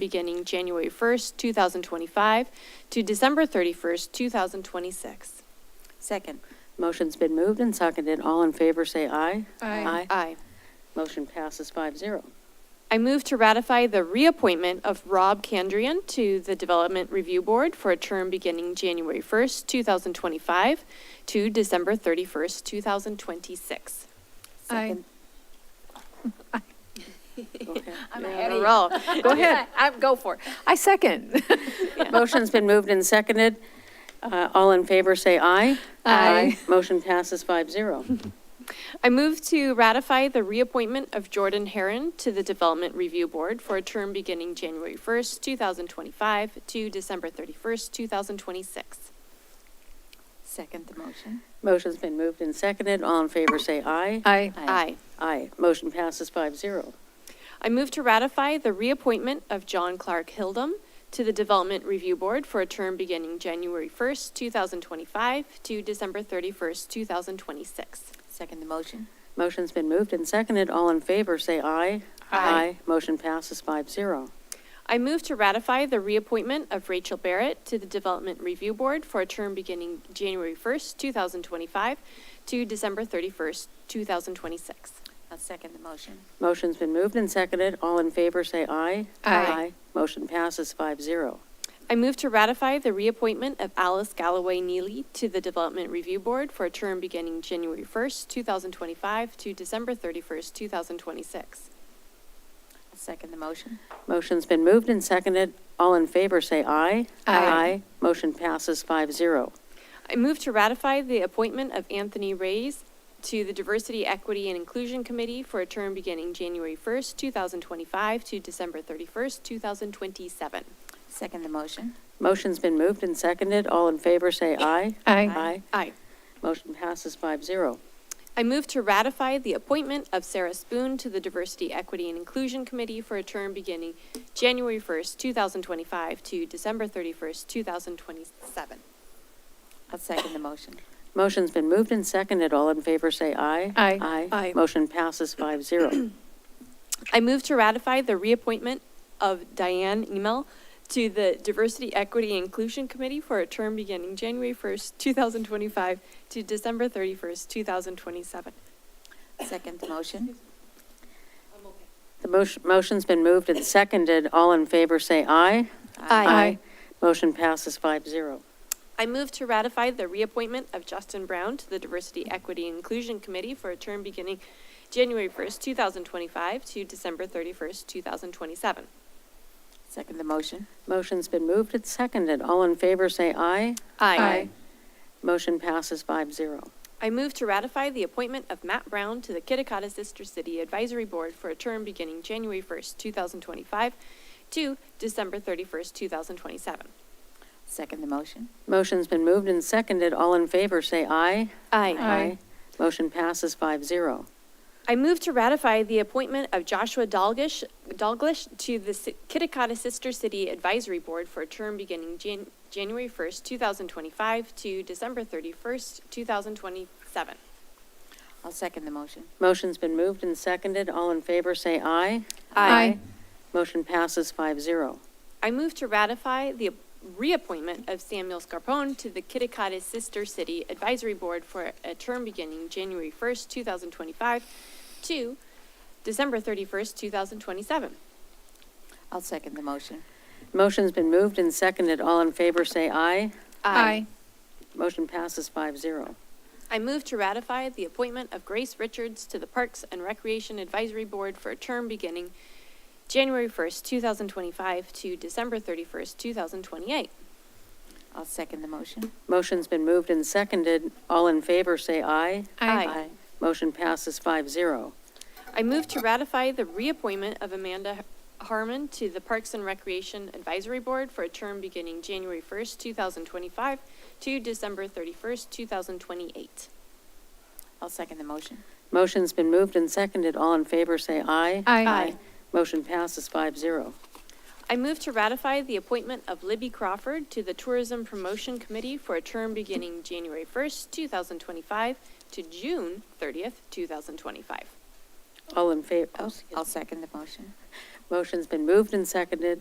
beginning January 1st, 2025 to December 31st, 2026. Second. Motion's been moved and seconded. All in favor, say aye. Aye. Aye. Motion passes five zero. I move to ratify the reappointment of Rob Candrian to the Development Review Board for a term beginning January 1st, 2025 to December 31st, 2026. Second. I'm In a row. Go ahead. I, go for it. I second. Motion's been moved and seconded. Uh, All in favor, say aye. Aye. Motion passes five zero. I move to ratify the reappointment of Jordan Heron to the Development Review Board for a term beginning January 1st, 2025 to December 31st, 2026. Second the motion. Motion's been moved and seconded. All in favor, say aye. Aye. Aye. Aye. Motion passes five zero. I move to ratify the reappointment of John Clark Hildum to the Development Review Board for a term beginning January 1st, 2025 to December 31st, 2026. Second the motion. Motion's been moved and seconded. All in favor, say aye. Aye. Motion passes five zero. I move to ratify the reappointment of Rachel Barrett to the Development Review Board for a term beginning January 1st, 2025 to December 31st, 2026. I'll second the motion. Motion's been moved and seconded. All in favor, say aye. Aye. Motion passes five zero. I move to ratify the reappointment of Alice Galloway Neely to the Development Review Board for a term beginning January 1st, 2025 to December 31st, 2026. I'll second the motion. Motion's been moved and seconded. All in favor, say aye. Aye. Motion passes five zero. I move to ratify the appointment of Anthony Reyes to the Diversity, Equity, and Inclusion Committee for a term beginning January 1st, 2025 to December 31st, 2027. Second the motion. Motion's been moved and seconded. All in favor, say aye. Aye. Aye. Motion passes five zero. I move to ratify the appointment of Sarah Spoon to the Diversity, Equity, and Inclusion Committee for a term beginning January 1st, 2025 to December 31st, 2027. I'll second the motion. Motion's been moved and seconded. All in favor, say aye. Aye. Aye. Aye. Motion passes five zero. I move to ratify the reappointment of Diane Emel to the Diversity, Equity, and Inclusion Committee for a term beginning January 1st, 2025 to December 31st, 2027. Second the motion. The motion, motion's been moved and seconded. All in favor, say aye. Aye. Motion passes five zero. I move to ratify the reappointment of Justin Brown to the Diversity, Equity, and Inclusion Committee for a term beginning January 1st, 2025 to December 31st, 2027. Second the motion. Motion's been moved and seconded. All in favor, say aye. Aye. Motion passes five zero. I move to ratify the appointment of Matt Brown to the Kitakata Sister City Advisory Board for a term beginning January 1st, 2025 to December 31st, 2027. Second the motion. Motion's been moved and seconded. All in favor, say aye. Aye. Motion passes five zero. I move to ratify the appointment of Joshua Dalgish, Dalglish to the Si- Kitakata Sister City Advisory Board for a term beginning Jan- January 1st, 2025 to December 31st, 2027. I'll second the motion. Motion's been moved and seconded. All in favor, say aye. Aye. Motion passes five zero. I move to ratify the reappointment of Samuel Scarpone to the Kitakata Sister City Advisory Board for a term beginning January 1st, 2025 to December 31st, 2027. I'll second the motion. Motion's been moved and seconded. All in favor, say aye. Aye. Motion passes five zero. I move to ratify the appointment of Grace Richards to the Parks and Recreation Advisory Board for a term beginning January 1st, 2025 to December 31st, 2028. I'll second the motion. Motion's been moved and seconded. All in favor, say aye. Aye. Motion passes five zero. I move to ratify the reappointment of Amanda Harmon to the Parks and Recreation Advisory Board for a term beginning January 1st, 2025 to December 31st, 2028. I'll second the motion. Motion's been moved and seconded. All in favor, say aye. Aye. Motion passes five zero. I move to ratify the appointment of Libby Crawford to the Tourism Promotion Committee for a term beginning January 1st, 2025 to June 30th, 2025. All in favor, Oh, I'll second the motion. motion's been moved and seconded.